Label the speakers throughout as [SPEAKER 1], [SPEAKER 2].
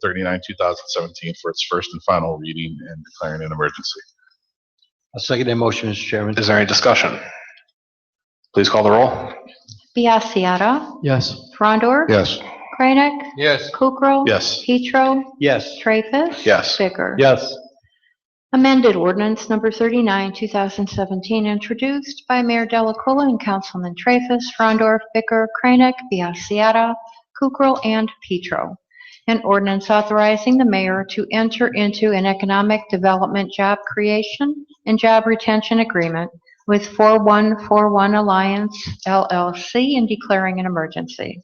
[SPEAKER 1] 39, 2017 for its first and final reading and declaring an emergency.
[SPEAKER 2] I'll second that motion, Mr. Chairman.
[SPEAKER 3] Is there any discussion? Please call the roll.
[SPEAKER 4] Biassiata.
[SPEAKER 2] Yes.
[SPEAKER 4] Frondor.
[SPEAKER 1] Yes.
[SPEAKER 4] Kranek.
[SPEAKER 2] Yes.
[SPEAKER 4] Kukrow.
[SPEAKER 1] Yes.
[SPEAKER 4] Petro.
[SPEAKER 2] Yes.
[SPEAKER 4] Traffus.
[SPEAKER 1] Yes.
[SPEAKER 4] Bicker.
[SPEAKER 2] Yes.
[SPEAKER 4] Amended ordinance number 39, 2017, introduced by Mayor Delacola and Councilman Traffus, Frondor, Bicker, Kranek, Biassiata, Kukrow, and Petro. An ordinance authorizing the mayor to enter into an economic development job creation and job retention agreement with 4141 Alliance LLC and declaring an emergency.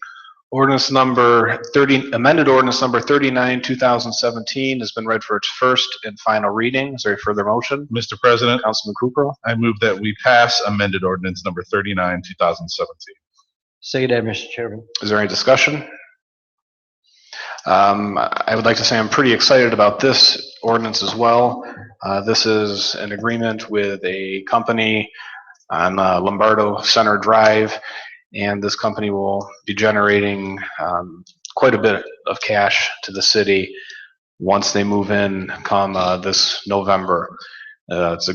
[SPEAKER 3] Ordinance number 30, amended ordinance number 39, 2017 has been read for its first and final reading. Is there a further motion?
[SPEAKER 1] Mr. President,
[SPEAKER 3] Councilman Kukrow.
[SPEAKER 1] I move that we pass amended ordinance number 39, 2017.
[SPEAKER 2] Second that, Mr. Chairman.
[SPEAKER 3] Is there any discussion? Um, I would like to say I'm pretty excited about this ordinance as well. Uh, This is an agreement with a company on uh, Lombardo Center Drive, and this company will be generating um, quite a bit of cash to the city once they move in come uh, this November. Uh, It's a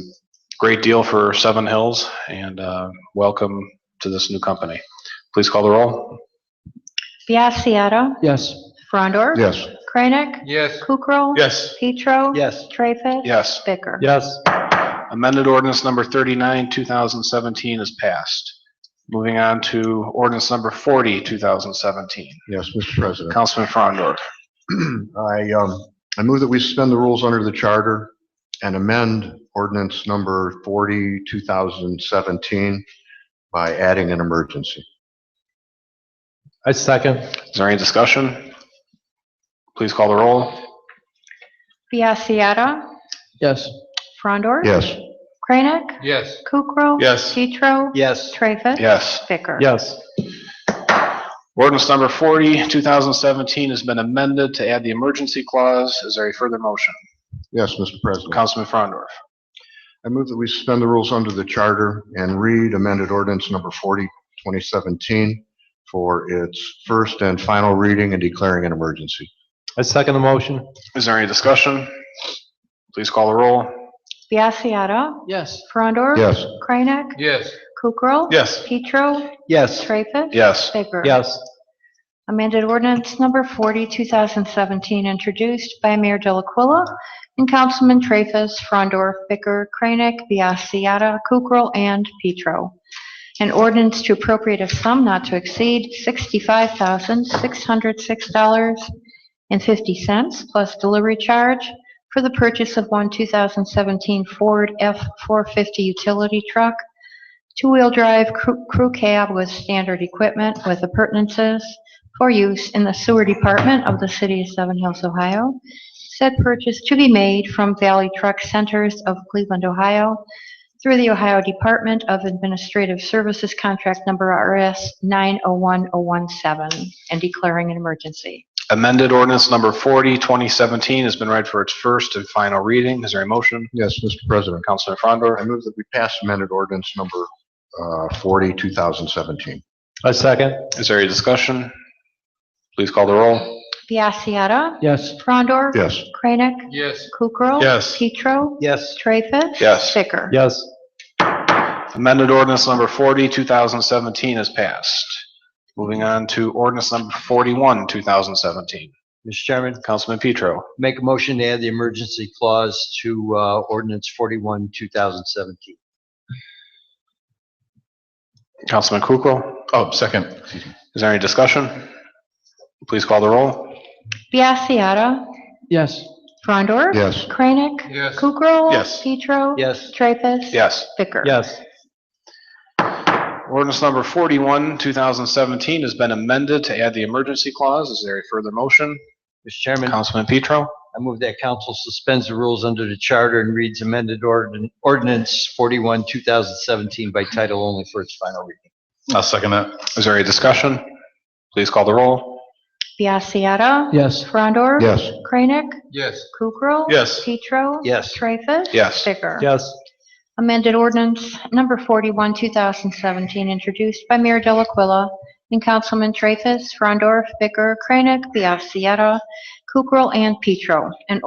[SPEAKER 3] great deal for Seven Hills, and uh, welcome to this new company. Please call the roll.
[SPEAKER 4] Biassiata.
[SPEAKER 2] Yes.
[SPEAKER 4] Frondor.
[SPEAKER 1] Yes.
[SPEAKER 4] Kranek.
[SPEAKER 2] Yes.
[SPEAKER 4] Kukrow.
[SPEAKER 1] Yes.
[SPEAKER 4] Petro.
[SPEAKER 2] Yes.
[SPEAKER 4] Traffus.
[SPEAKER 3] Yes.
[SPEAKER 4] Bicker.
[SPEAKER 2] Yes.
[SPEAKER 3] Amended ordinance number 39, 2017 is passed. Moving on to ordinance number 40, 2017.
[SPEAKER 5] Yes, Mr. President.
[SPEAKER 3] Councilman Frondor.
[SPEAKER 5] I, um, I move that we suspend the rules under the charter and amend ordinance number 40, 2017 by adding an emergency.
[SPEAKER 2] I second.
[SPEAKER 3] Is there any discussion? Please call the roll.
[SPEAKER 4] Biassiata.
[SPEAKER 2] Yes.
[SPEAKER 4] Frondor.
[SPEAKER 5] Yes,
[SPEAKER 4] Kranek.
[SPEAKER 2] Yes.
[SPEAKER 4] Kukrow.
[SPEAKER 1] Yes.
[SPEAKER 4] Petro.
[SPEAKER 2] Yes.
[SPEAKER 4] Traffus.
[SPEAKER 3] Yes.
[SPEAKER 4] Bicker.
[SPEAKER 2] Yes.
[SPEAKER 3] Ordinance number 40, 2017 has been amended to add the emergency clause. Is there a further motion?
[SPEAKER 5] yes, Mr. President.
[SPEAKER 3] Councilman Frondor.
[SPEAKER 5] I move that we suspend the rules under the charter and read amended ordinance number 40, 2017 for its first and final reading and declaring an emergency.
[SPEAKER 2] I second the motion.
[SPEAKER 3] Is there any discussion? Please call the roll.
[SPEAKER 4] Biassiata.
[SPEAKER 2] Yes.
[SPEAKER 4] Frondor.
[SPEAKER 5] Yes,
[SPEAKER 4] Kranek.
[SPEAKER 2] Yes.
[SPEAKER 4] Kukrow.
[SPEAKER 1] Yes.
[SPEAKER 4] Petro.
[SPEAKER 2] Yes.
[SPEAKER 4] Traffus.
[SPEAKER 3] Yes.
[SPEAKER 4] Bicker.
[SPEAKER 2] Yes.
[SPEAKER 4] Amended ordinance number 40, 2017, introduced by Mayor Delaquila and Councilman Traffus, Frondor, Bicker, Kranek, Biassiata, Kukrow, and Petro. An ordinance to appropriate a sum not to exceed $65,606.50 plus delivery charge for the purchase of one 2017 Ford F-450 utility truck, two-wheel drive crew crew cab with standard equipment with appurtenances, for use in the sewer department of the city of Seven Hills, Ohio. Said purchase to be made from Valley Truck Centers of Cleveland, Ohio through the Ohio Department of Administrative Services Contract Number RS 901017 and declaring an emergency.
[SPEAKER 3] Amended ordinance number 40, 2017 has been read for its first and final reading. Is there a motion?
[SPEAKER 5] yes, Mr. President.
[SPEAKER 3] Councilman Frondor.
[SPEAKER 5] I move that we pass amended ordinance number uh, 40, 2017.
[SPEAKER 2] I second.
[SPEAKER 3] Is there any discussion? Please call the roll.
[SPEAKER 4] Biassiata.
[SPEAKER 2] Yes.
[SPEAKER 4] Frondor.
[SPEAKER 5] Yes.
[SPEAKER 4] Kranek.
[SPEAKER 2] Yes.
[SPEAKER 4] Kukrow.
[SPEAKER 1] Yes.
[SPEAKER 4] Petro.
[SPEAKER 2] Yes.
[SPEAKER 4] Treffus.
[SPEAKER 3] Yes.
[SPEAKER 4] Bicker.
[SPEAKER 2] Yes.
[SPEAKER 3] Amended ordinance number 40, 2017 is passed. Moving on to ordinance number 41, 2017.
[SPEAKER 2] Mr. Chairman,
[SPEAKER 3] Councilman Petro.
[SPEAKER 2] make a motion to add the emergency clause to uh, ordinance 41, 2017.
[SPEAKER 3] Councilman Kukrow.
[SPEAKER 1] Oh, second.
[SPEAKER 3] Is there any discussion? Please call the roll.
[SPEAKER 4] Biassiata.
[SPEAKER 2] Yes.
[SPEAKER 4] Frondor.
[SPEAKER 5] Yes.
[SPEAKER 4] Kranek.
[SPEAKER 2] Yes.
[SPEAKER 4] Kukrow.
[SPEAKER 1] Yes.
[SPEAKER 4] Petro.
[SPEAKER 2] Yes.
[SPEAKER 4] Treffus.
[SPEAKER 3] Yes.
[SPEAKER 4] Bicker.
[SPEAKER 2] Yes.
[SPEAKER 3] Ordinance number 41, 2017 has been amended to add the emergency clause. Is there a further motion?
[SPEAKER 2] Mr. Chairman,
[SPEAKER 3] Councilman Petro.
[SPEAKER 2] I move that council suspends the rules under the charter and reads amended ordin- ordinance 41, 2017 by title only for its final reading.
[SPEAKER 1] I'll second that.
[SPEAKER 3] Is there any discussion? Please call the roll.
[SPEAKER 4] Biassiata.
[SPEAKER 2] Yes.
[SPEAKER 4] Frondor.
[SPEAKER 5] Yes.
[SPEAKER 4] Kranek.
[SPEAKER 2] Yes.
[SPEAKER 4] Kukrow.
[SPEAKER 1] Yes.
[SPEAKER 4] Petro.
[SPEAKER 2] Yes.
[SPEAKER 4] Traffus.
[SPEAKER 3] Yes.
[SPEAKER 4] Bicker.
[SPEAKER 2] Yes.
[SPEAKER 4] Amended ordinance number 41, 2017, introduced by Mayor Delaquila and Councilman Traffus, Frondor, Bicker, Kranek, Biassiata, Kukrow and Petro, an